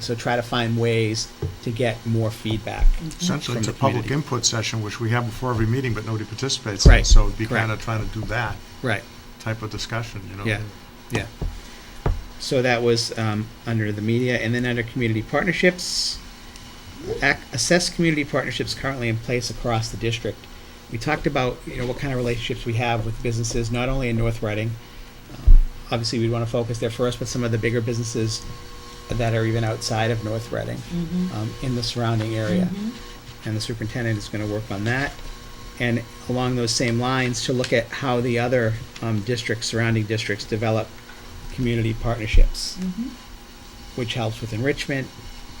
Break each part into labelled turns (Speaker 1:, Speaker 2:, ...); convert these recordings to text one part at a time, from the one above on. Speaker 1: So try to find ways to get more feedback.
Speaker 2: Essentially,
Speaker 1: From
Speaker 2: it's a
Speaker 1: the
Speaker 2: public
Speaker 1: community.
Speaker 2: input session, which we have before every meeting, but nobody participates in.
Speaker 1: Right,
Speaker 2: So it'd be
Speaker 1: correct.
Speaker 2: kind of trying to do that
Speaker 1: Right,
Speaker 2: type of discussion, you know?
Speaker 1: Yeah. yeah. So that was um, under the media, and then under community partnerships, ac- assess community partnerships currently in place across the district. We talked about you know what kind of relationships we have with businesses, not only in North Reading. Um, obviously, we'd want to focus there first, but some of the bigger businesses that are even outside of North Reading, um, in the surrounding area.
Speaker 3: Mm-hmm.
Speaker 1: and the superintendent is going to work on that. And along those same lines, to look at how the other um, districts, surrounding districts, develop community partnerships,
Speaker 3: Mm-hmm.
Speaker 1: which helps with enrichment,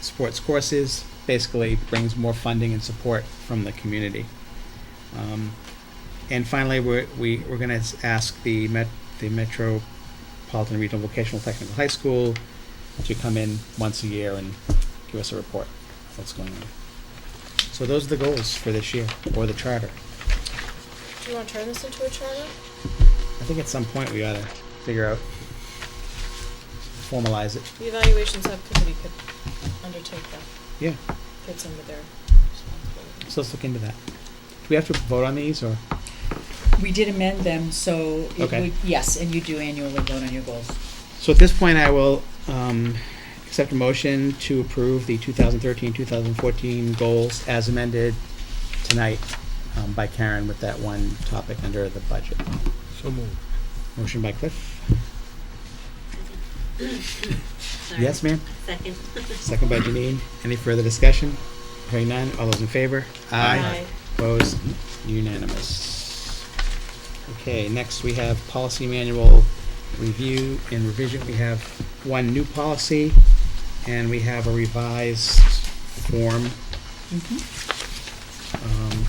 Speaker 1: sports courses, basically brings more funding and support from the community. Um, and finally, we're, we, we're going to ask the, Met, the Metropolitan Regional Vocational Technical High School to come in once a year and give us a report of what's going on. So those are the goals for this year, or the charter.
Speaker 4: Do you want to turn this into a charter?
Speaker 1: I think at some point we ought to figure out, formalize it.
Speaker 4: The evaluation subcommittee could undertake that,
Speaker 1: Yeah,
Speaker 4: fits under their responsibilities.
Speaker 1: so let's look into that. Do we have to vote on these, or?
Speaker 3: We did amend them, so it
Speaker 1: Okay.
Speaker 3: would, yes, and you do annually vote on your goals.
Speaker 1: So at this point, I will um, accept a motion to approve the 2013, 2014 goals as amended tonight um, by Karen with that one topic under the budget.
Speaker 5: So moved.
Speaker 1: Motion by Cliff. Yes, ma'am?
Speaker 6: Second.
Speaker 1: Second by Janine. Any further discussion? Hearing none. All those in favor?
Speaker 4: Aye.
Speaker 1: Opposed? Unanimous. Okay, next we have policy manual review and revision. We have one new policy and we have a revised form. Um,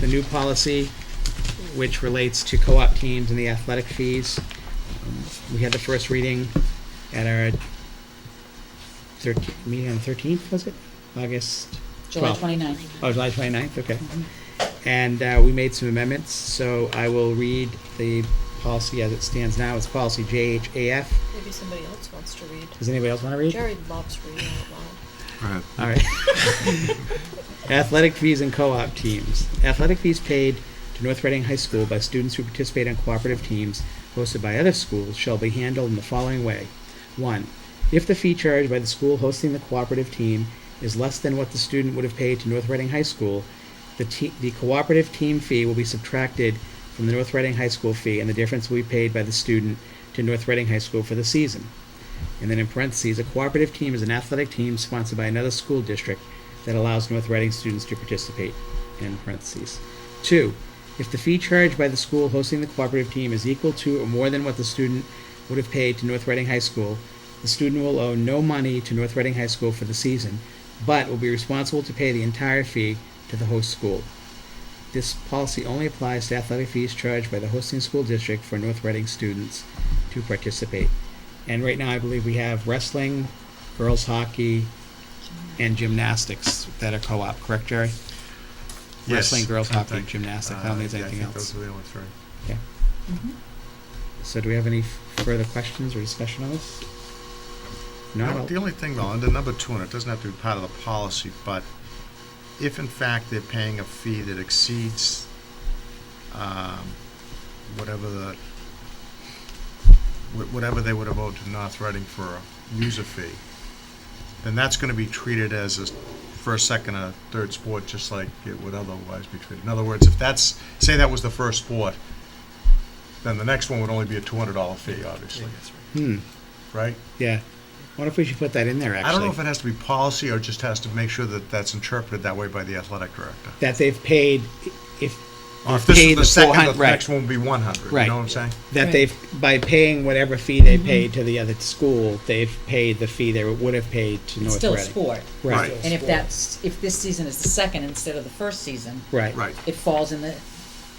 Speaker 1: The new policy, which relates to co-op teams and the athletic fees. Um, We had the first reading at our thirteen, meeting on the thirteenth, was it? August?
Speaker 3: July
Speaker 1: 12th.
Speaker 3: twenty-ninth.
Speaker 1: Oh, July 29th, okay. And uh, we made some amendments, so I will read the policy as it stands now. It's policy JHAF.
Speaker 4: Maybe somebody else wants to read.
Speaker 1: Does anybody else want to read?
Speaker 4: Jerry loves reading out loud.
Speaker 2: Right.
Speaker 1: All right. Athletic fees and co-op teams. Athletic fees paid to North Reading High School by students who participate in cooperative teams hosted by other schools shall be handled in the following way. One, if the fee charged by the school hosting the cooperative team is less than what the student would have paid to North Reading High School, the te- the cooperative team fee will be subtracted from the North Reading High School fee and the difference will be paid by the student to North Reading High School for the season. And then in parentheses, a cooperative team is an athletic team sponsored by another school district that allows North Reading students to participate. In parentheses. Two, if the fee charged by the school hosting the cooperative team is equal to or more than what the student would have paid to North Reading High School, the student will owe no money to North Reading High School for the season, but will be responsible to pay the entire fee to the host school. This policy only applies to athletic fees charged by the hosting school district for North Reading students to participate. And right now, I believe we have wrestling, girls hockey, and gymnastics that are co-op, correct, Jerry? Wrestling, girls hockey, and gymnastics. I
Speaker 2: Uh,
Speaker 1: don't think there's anything else.
Speaker 2: those are the only three.
Speaker 1: Okay.
Speaker 3: Mhm.
Speaker 1: So do we have any f- further questions or discussion on this? No?
Speaker 2: Now, The only thing though, under number two, and it doesn't have to be part of the policy, but if in fact they're paying a fee that exceeds, um, whatever the, wh- whatever they would have owed to North Reading for a user fee, then that's gonna be treated as a first, second, or third sport, just like it would otherwise be treated. In other words, if that's, say that was the first sport, then the next one would only be a two hundred dollar fee, obviously,
Speaker 1: Hmm,
Speaker 2: right?
Speaker 1: yeah. What if we should put that in there, actually?
Speaker 2: I don't know if it has to be policy or just has to make sure that that's interpreted that way by the athletic director.
Speaker 1: That they've paid, i- if,
Speaker 2: Or if this
Speaker 1: Pay
Speaker 2: is
Speaker 1: the
Speaker 2: the second,
Speaker 1: 400,
Speaker 2: the
Speaker 1: right.
Speaker 2: next one will be one hundred, you
Speaker 1: Right.
Speaker 2: know what I'm saying?
Speaker 1: that
Speaker 3: Right. Mm-hmm.
Speaker 1: they've, by paying whatever fee they paid to the other school, they've paid the fee they would have paid to
Speaker 3: It's
Speaker 1: North
Speaker 3: still a
Speaker 1: Reading.
Speaker 3: sport.
Speaker 1: Right,
Speaker 3: And if that's, if this season is the second instead of the first season,
Speaker 1: right.
Speaker 2: Right,
Speaker 3: it falls in the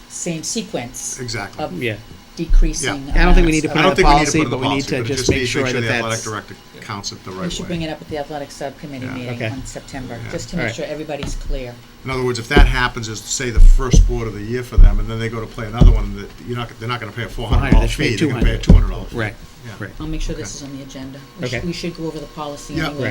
Speaker 3: same sequence
Speaker 2: exactly.
Speaker 3: of
Speaker 1: Yeah,
Speaker 3: decreasing.
Speaker 1: I don't think we need
Speaker 3: amounts
Speaker 1: to
Speaker 3: of-
Speaker 1: Uh, put it
Speaker 2: I don't
Speaker 1: the
Speaker 2: think
Speaker 1: policy,
Speaker 2: we need to put it in the
Speaker 1: but we need
Speaker 2: policy,
Speaker 1: to
Speaker 2: but it
Speaker 1: just
Speaker 2: just
Speaker 1: make
Speaker 2: needs to
Speaker 1: sure
Speaker 2: make sure
Speaker 1: that
Speaker 2: the athletic
Speaker 1: that's-
Speaker 2: director counts it the
Speaker 3: We
Speaker 2: right
Speaker 3: should bring
Speaker 2: way.
Speaker 3: it up at the athletic subcommittee
Speaker 2: Yeah.
Speaker 3: meeting
Speaker 1: Okay.
Speaker 3: in September,
Speaker 2: Yeah.
Speaker 3: just to make
Speaker 1: Alright.
Speaker 3: sure everybody's clear.
Speaker 2: In other words, if that happens, is say the first board of the year for them, and then they go to play another one, that you're not, they're not gonna pay a four hundred dollar
Speaker 1: 400, they
Speaker 2: fee,
Speaker 1: should
Speaker 2: they're
Speaker 1: pay
Speaker 2: gonna pay a two hundred dollar fee.
Speaker 1: Right,
Speaker 2: Yeah.
Speaker 1: right.
Speaker 3: I'll make sure
Speaker 2: Okay.
Speaker 3: this is on the agenda. We sh-
Speaker 1: Okay.
Speaker 3: We should go over the policy
Speaker 2: Yeah.
Speaker 3: anyway.